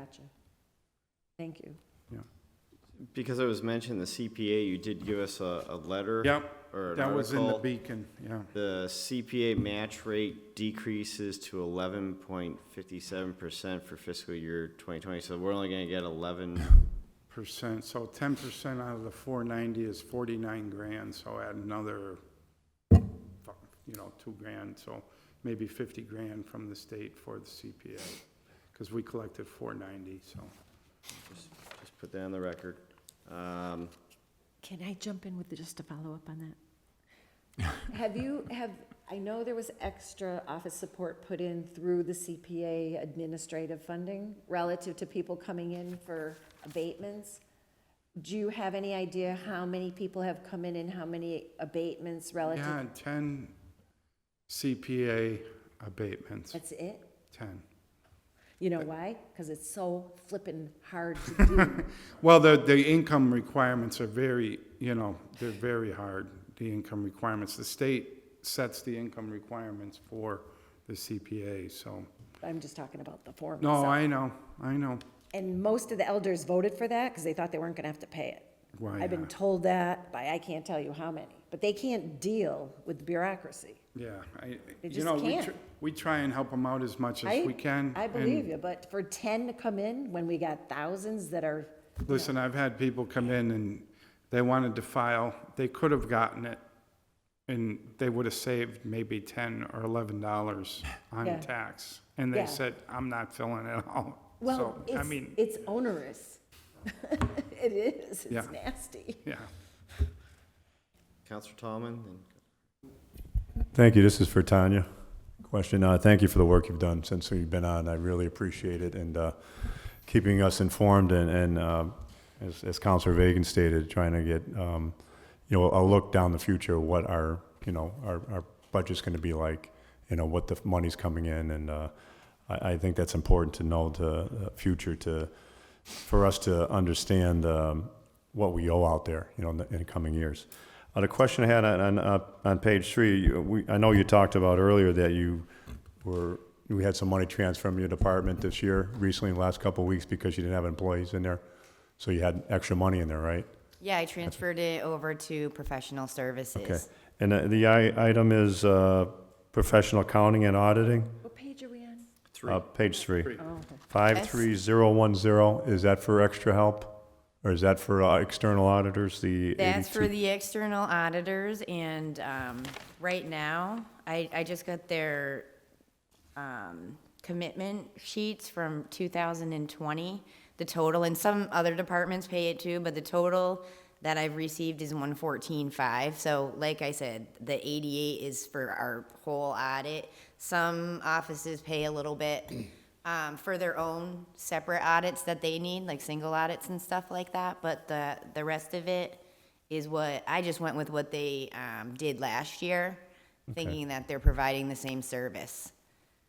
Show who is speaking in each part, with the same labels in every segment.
Speaker 1: Gotcha. Thank you.
Speaker 2: Because it was mentioned, the CPA, you did give us a, a letter.
Speaker 3: Yep,
Speaker 2: Or an
Speaker 3: that was in the
Speaker 2: article.
Speaker 3: Beacon, yeah.
Speaker 2: The CPA match rate decreases to eleven point fifty-seven percent for fiscal year twenty twenty, so we're only gonna get eleven.
Speaker 3: Percent, so ten percent out of the four ninety is forty-nine grand, so add another, you know, two grand, so maybe fifty grand from the state for the CPA, because we collected four ninety, so.
Speaker 2: Just put that on the record. Um,
Speaker 4: Can I jump in with just a follow-up on that?
Speaker 1: Have you, have, I know there was extra office support put in through the CPA administrative funding relative to people coming in for abatements. Do you have any idea how many people have come in and how many abatements
Speaker 3: Yeah,
Speaker 1: relative?
Speaker 3: ten CPA abatements,
Speaker 1: That's it?
Speaker 3: ten.
Speaker 1: You
Speaker 3: Uh,
Speaker 1: know why? Because it's so flippin' hard to do.
Speaker 3: Well, the, the income requirements are very, you know, they're very hard, the income requirements. The state sets the income requirements for the CPA, so.
Speaker 1: I'm just talking about the form
Speaker 3: No,
Speaker 1: itself.
Speaker 3: I know, I know.
Speaker 1: And most of the elders voted for that because they thought they weren't gonna have to pay it.
Speaker 3: Why
Speaker 1: I've been
Speaker 3: not?
Speaker 1: told that by I can't tell you how many, but they can't deal with bureaucracy.
Speaker 3: Yeah, I, you
Speaker 1: just
Speaker 3: know, we,
Speaker 1: can't.
Speaker 3: tr- we try and help them out as much as
Speaker 1: I-
Speaker 3: we can.
Speaker 1: I
Speaker 3: and
Speaker 1: believe you, but for ten to come in when we got thousands that are,
Speaker 3: Listen, I've had people come in and they wanted to file, they could have gotten it, and they would have saved maybe ten or eleven dollars on
Speaker 1: Yeah.
Speaker 3: tax. And
Speaker 1: Yeah.
Speaker 3: they said, I'm not filling it out.
Speaker 1: well,
Speaker 3: So, I
Speaker 1: it's,
Speaker 3: mean,
Speaker 1: it's onerous. It is,
Speaker 3: Yeah.
Speaker 1: it's nasty.
Speaker 3: yeah.
Speaker 2: Counselor Tomlin, and
Speaker 5: Thank you. This is for Tanya. Question. Uh, thank you for the work you've done since we've been on. I really appreciate it and uh, keeping us informed and, and uh, as, as Councilor Vagan stated, trying to get um, you know a look down the future what our you know our, our budget's going to be like. You know what the money's coming in, and uh, I, I think that's important to know the uh, future to for us to understand um, what we owe out there, you know, in the, in the coming years. Uh, the question I had on on, uh, on page three, you- we, I know you talked about earlier that you were we had some money transferred from your department this year recently, in the last couple of weeks, because you didn't have employees in there, so you had extra money in there, right?
Speaker 6: Yeah, I transferred it over to professional
Speaker 5: Okay.
Speaker 6: services.
Speaker 5: And uh, the I, item is uh, professional accounting and auditing.
Speaker 1: What page are we on?
Speaker 5: Uh, page three.
Speaker 1: Oh, okay.
Speaker 5: Five
Speaker 6: Yes.
Speaker 5: three zero one zero. Is that for extra help, or is that for uh, external auditors? The
Speaker 6: That's for
Speaker 5: 82?
Speaker 6: the external auditors, and um, right now, I, I just got their um, commitment sheets from 2020, the total, and some other departments pay it too, but the total that I've received is 114.5. So like I said, the 88 is for our whole audit. Some offices pay a little bit um, for their own separate audits that they need, like single audits and stuff like that, but the, the rest of it is what, I just went with what they um, did last year, thinking that they're providing the same service.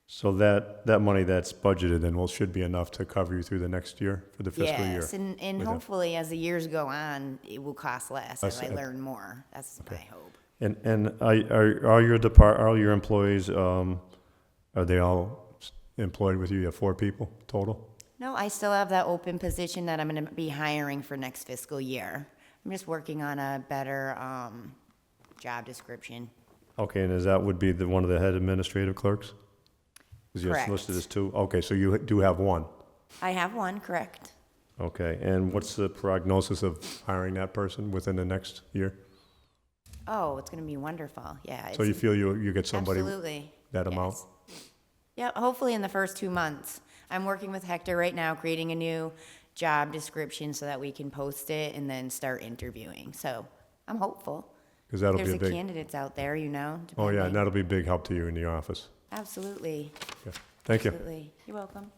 Speaker 5: So that, that money that's budgeted then will, should be enough to cover you through the next year, for the fiscal year?
Speaker 6: Yes, and, and
Speaker 5: with a-
Speaker 6: hopefully as the years go on, it will cost less
Speaker 5: I
Speaker 6: as I
Speaker 5: see.
Speaker 6: learn more. That's my hope.
Speaker 5: And, and are- are, are your depart, are your employees, um, are they all s- employed with you? You have four people total?
Speaker 6: No, I still have that open position that I'm gonna be hiring for next fiscal year. I'm just working on a better, um, job description.
Speaker 5: Okay, and is that would be the, one of the head administrative clerks? Is you
Speaker 6: Correct.
Speaker 5: listed as two? Okay, so you do have one.
Speaker 6: I have one, correct?
Speaker 5: Okay, and what's the prognosis of hiring that person within the next year?
Speaker 6: Oh, it's gonna be wonderful, yeah.
Speaker 5: So
Speaker 6: it's-
Speaker 5: you feel you, you get somebody
Speaker 6: Absolutely.
Speaker 5: that amount?
Speaker 6: Yes. Yeah, hopefully in the first two months. I'm working with Hector right now, creating a new job description so that we can post it and then start interviewing. So I'm hopeful.
Speaker 5: Because that'll be a
Speaker 6: There's a
Speaker 5: big,
Speaker 6: candidates out there, you know.
Speaker 5: oh yeah,
Speaker 6: depending.
Speaker 5: and that'll be a big help to you in your office.
Speaker 6: Absolutely,
Speaker 5: Yeah. Thank you.
Speaker 6: absolutely. You're welcome.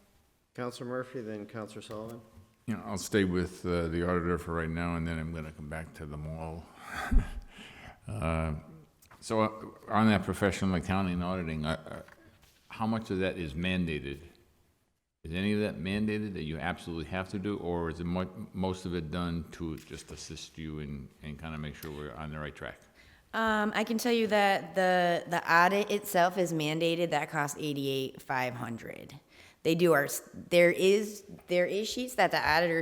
Speaker 2: Counselor Murphy, then Counselor Sullivan.
Speaker 7: Yeah, I'll stay with uh, the auditor for right now, and then I'm going to come back to the mall. Uh, So uh, on that professional accounting and auditing, uh, uh, how much of that is mandated? Is any of that mandated that you absolutely have to do, or is it mu- most of it done to just assist you and, and kind of make sure we're on the right track?
Speaker 6: Um, I can tell you that the, the audit itself is mandated, that costs eighty-eight, five hundred. They do our, s- there is, there is sheets that the auditor